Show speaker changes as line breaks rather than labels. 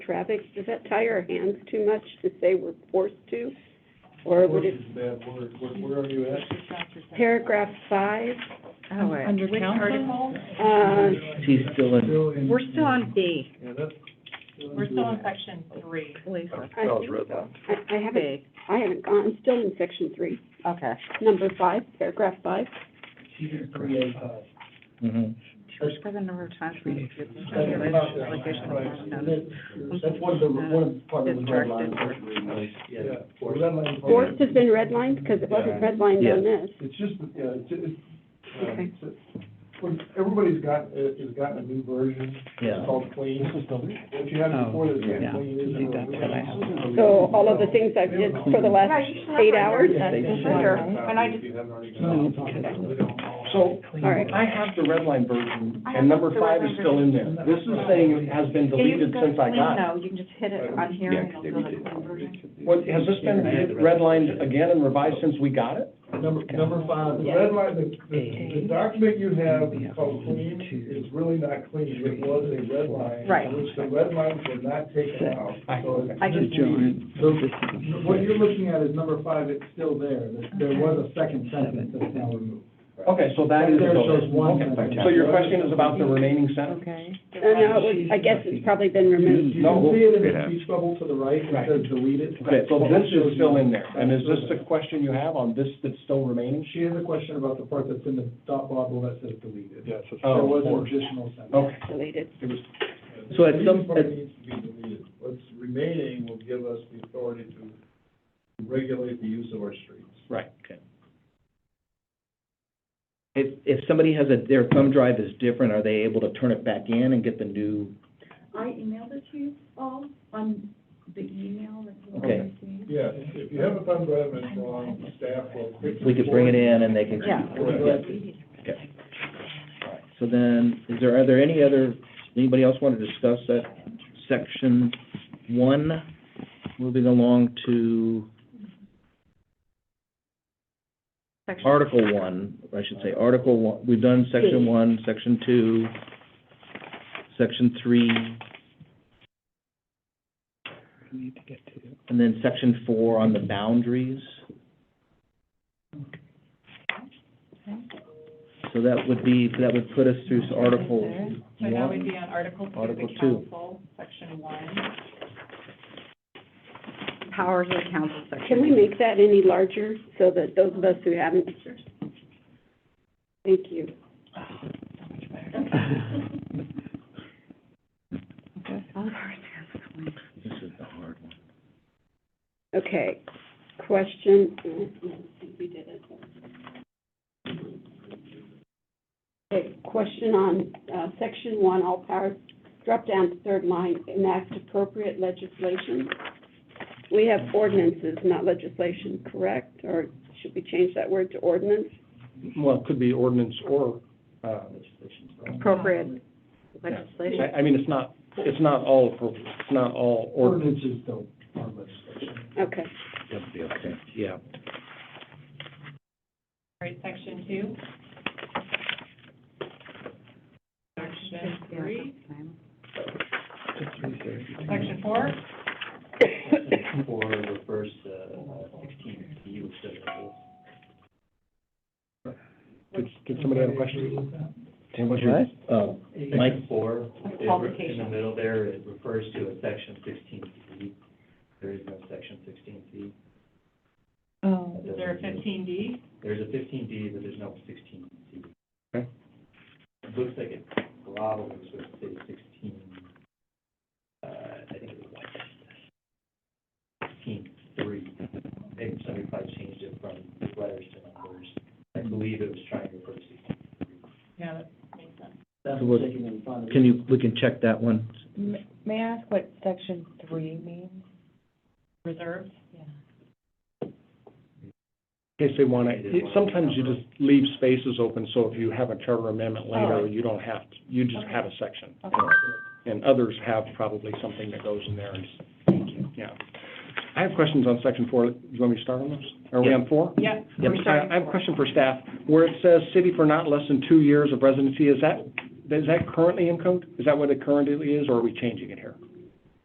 traffic, does that tie our hands too much to say we're forced to? Or would it,
Force is a bad word. What- Where are you at?
paragraph five,
Under council?
uh,
She's still in,
Still in-
We're still on B.
Yeah, that's. in
We're still in
the-
section three.
Lisa.
I
Sounds
think
right.
so. I, I haven't,
B.
I haven't gone, I'm still in section three,
Okay.
number five, paragraph five.
uh,
mhm.
For the number of times. we-
That's about that. Right. And then, That's one of the,
uh,
one of the part of the red line. Yeah, the red line part.
Forced has been redlined, because it wasn't redlined on this.
It's just, yeah, it's, it's,
Okay.
um, it's- when, everybody's got, uh, has gotten a new version,
yeah. Oh,
it's called clean. If you had it before, it's
Yeah.
not clean. isn't it?
So all of the things I've did for the last eight hours,
And I just.
So,
all right.
I have the red line version, and number five is still in there. This is saying it has been deleted since I got it.
you can just hit
it on
here
Yeah, 'cause they redid it.
What, has this been redlined again and revised since we got it?
Number, number five, the red line, the, the, the document you have called clean is really not clean, it was a red line.
Right.
Which the red lines were not taken out, so it's.
I can-
just read. So, what you're looking at is number five, it's still there, there, there was a second sentence that's now removed.
Okay, so that is
There
still
shows one
there. Okay.
sentence.
So your question is about the remaining sentence?
Okay.
Uh, no, it was, I guess it's probably been removed.
You
No.
can see it in the
Yeah.
speech bubble to the right, it
Right.
says deleted.
Okay, so this is still in there, and is this the question you have on this that's still remaining?
She has a question about the part that's in the dot bubble that says deleted. Yes. There
Oh,
was an
four. Oh.
additional sentence.
Okay,
Deleted.
So at some-
Part needs to be deleted. What's remaining will give us the authority to regulate the use of our streets.
right.
If, if somebody has a, their thumb drive is different, are they able to turn it back in and get the new?
I emailed it to you all on the email that you all
Okay.
received.
Yeah, if you have a thumb drive and it's wrong, staff will.
We could bring it in and they can.
Yeah.
All right. So then, is there, are there any other, anybody else want to discuss that section one? Moving along to Article one, I should say, Article one, we've done section one, section two, section three,
Need to get to.
and then section four on the boundaries. So that would be, that would put us through Article
So now we'd
one.
be on Article two,
Article
the
two.
council, section one.
Powers of the council section.
Can we make that any larger so that those of us who haven't? Thank you.
This is the hard one.
Okay, question, uh, I think we did it. Okay, question on, uh, section one, all powers, drop down to third line, enact appropriate legislation. We have ordinances, not legislation, correct? Or should we change that word to ordinance?
Well, it could be ordinance or, uh,
Appropriate legislation.
I, I mean, it's not, it's not all, appro- it's not all ordinance.
Ordinances don't, are legislation.
Okay,
That would be okay, yeah.
All right, section two. Section three, section four,
for the first uh, sixteen views that are-
Did, did somebody have a question?
Tim, what's your? Oh, Mike,
Section Four, it re- in the
publication.
middle there, it refers to a section sixteen C. There is no section sixteen C.
Oh.
Is there a fifteen D?
There's a fifteen D, but there's no sixteen C.
Okay.
It looks like it probably should say sixteen, uh, I think it was sixteen three. Maybe somebody probably changed it from letters to numbers. I believe it was trying to refer to sixteen.
Yeah, that makes sense.
So what- can you, we can check that one.
May I ask what section three means?
Reserved.
In case they want to, sometimes you just leave spaces open, so if you have a charter amendment
Oh.
later, you don't have, to- you just have a section. And others have probably something that goes in there, and, yeah. I have questions on section four, do you want me to start on this? Are we on four?
Yeah,
Yep.
we're
I
starting.
I have a question for staff, where it says city for not less than two years of residency, is that, is that currently in code? Is that what it currently is, or are we changing it here?